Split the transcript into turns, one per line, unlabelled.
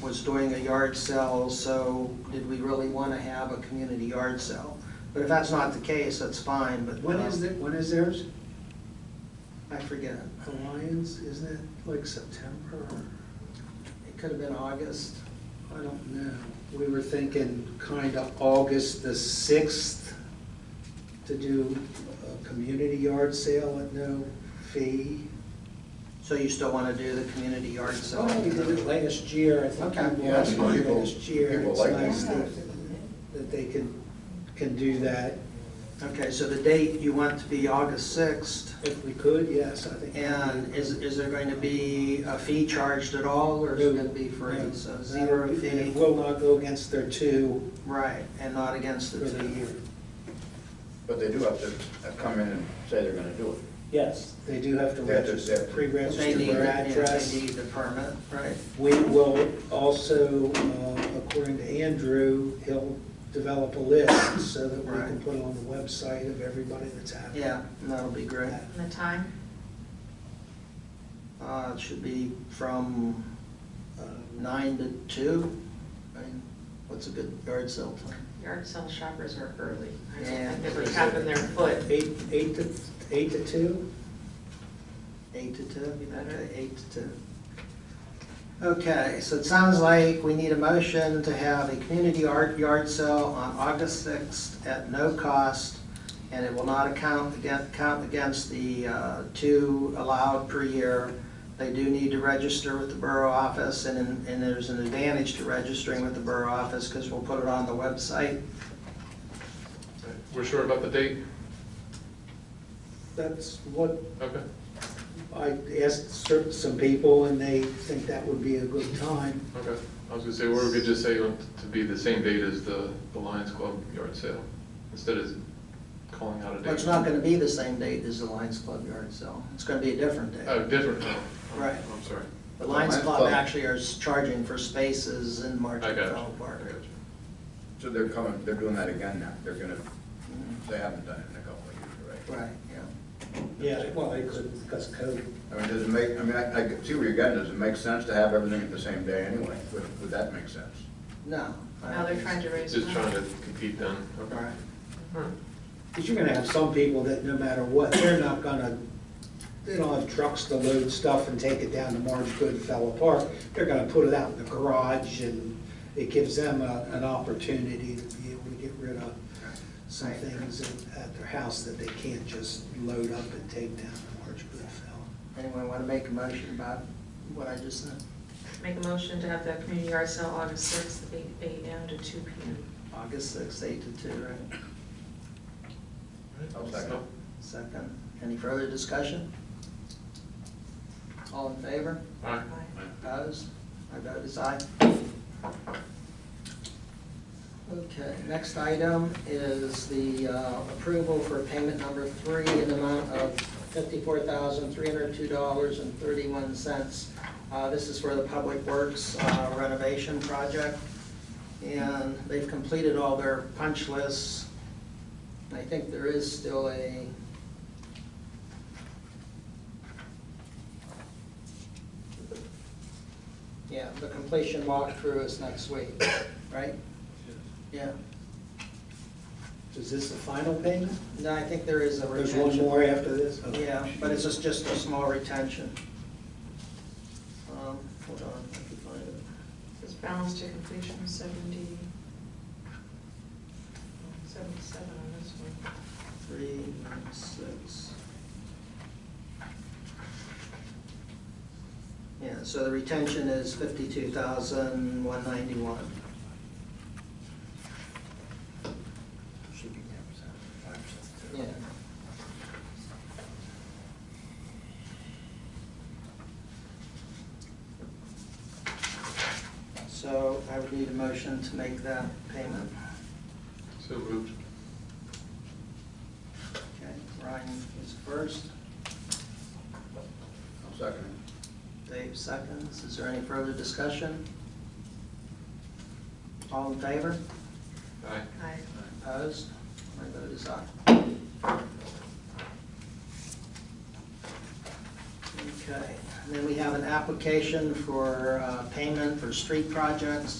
was doing a yard sale, so did we really want to have a community yard sale? But if that's not the case, that's fine, but.
When
uh,
is it, when is theirs?
I forget.
The Lions, isn't it like September?
It could have been August.
I don't know. We were thinking kind of August the sixth to do a community yard sale at no fee.
So you still want to do the community yard sale?
So Oh, we did it last year, I think
Okay.
people
Yeah,
asked
people-
me last year.
people
It's
like
nice
that.
that, that they can, can do that
Okay, so the date you want to be August 6th,
if we could, yes, I think.
and is, is there going to be a fee charged at all, or is it going to be free? So zero
And
fee,
It will not go against their two
right, and not against
for
the
the
two.
year.
But they do have to come in and say they're gonna do it.
Yes, they do have to
They have to- they
register,
have to-
They
pre-register
need,
their
yeah,
address.
they need the permit, right?
We will also, uh, according to Andrew, he'll develop a list so that we can
Right.
put on the website of everybody that's happening.
Yeah, and that'll be great.
And the time?
Uh, it should be from uh,
Um,
nine to two. I mean, what's a good yard sale time?
Yard sale shoppers are early. I don't-
Yeah.
I've never tapping their foot.
Eight, eight to, eight to two?
Eight to two,
Be better.
okay, eight to two. Okay, so it sounds like we need a motion to have a community art yard sale on August sixth at no cost, and it will not account, again- count against the uh, two allowed per year. They do need to register with the borough office, and, and there's an advantage to registering with the borough office, because we'll put it on the website.
We're sure about the date?
That's what
Okay.
I asked cer- some people and they think that would be a good time.
Okay. I was gonna say, or we could just say on- to be the same date as the the Lions Club yard sale, instead of calling out a date.
But it's not gonna be the same date as the Lions Club yard sale, it's gonna be a different date.
Oh, different, no.
Right.
I'm sorry.
The Lions
Lions
Club
Club.
actually are charging for spaces in
I
Martin
got
Fellow
you. I
Park.
got you.
So they're coming, they're doing that again now. They're gonna, they haven't done it in a couple of years, right?
Right, yeah.
Yeah, well, they couldn't because COVID.
I mean, does it make, I mean, I, I see where you're getting. Does it make sense to have everything at the same day anyway? Would, would that make sense?
No. I
Now they're
don't
trying to raise
Just trying
money.
to compete then.
think
Okay.
so. Right.
All right.
Because you're gonna have some people that no matter what, they're not gonna, they don't have trucks to load stuff and take it down to Marge Goodfellow Park. They're gonna put it out in the garage and it gives them a, an opportunity to be able to get rid of some things at- at their house that they can't just load up and take down to Marge Goodfellow.
Anyone want to make a motion about what I just said?
Make a motion to have the community yard sale August sixth, eight AM to two PM.
August sixth, eight to two, right?
I'll second.
Second. Any further discussion? All in favor?
All right.
Opposed? My vote is aye. Okay, next item is the uh, approval for payment number three in the amount of $54,302.31. Uh, This is for the Public Works uh, renovation project, and they've completed all their punch lists. I think there is still a Yeah, the completion walkthrough is next week, right? Yeah,
Is this the final payment?
no, I think there is a
There's
retention.
one more after this? Okay.
Yeah, but it's just, just a small retention. Um, hold on, I can find it.
This balance to completion is seventy, seventy-seven on this one.
Three, nine, six. Yeah, so the retention is fifty-two thousand, one ninety-one.
Should be 10%, 5%.
Yeah. So I would need a motion to make that payment.
So moved.
Okay, Ryan is first,
I'll second it.
Dave seconds. Is there any further discussion? All in favor?
Aye.
Aye.
Opposed? My vote is aye. Okay, And then we have an application for uh, payment for street projects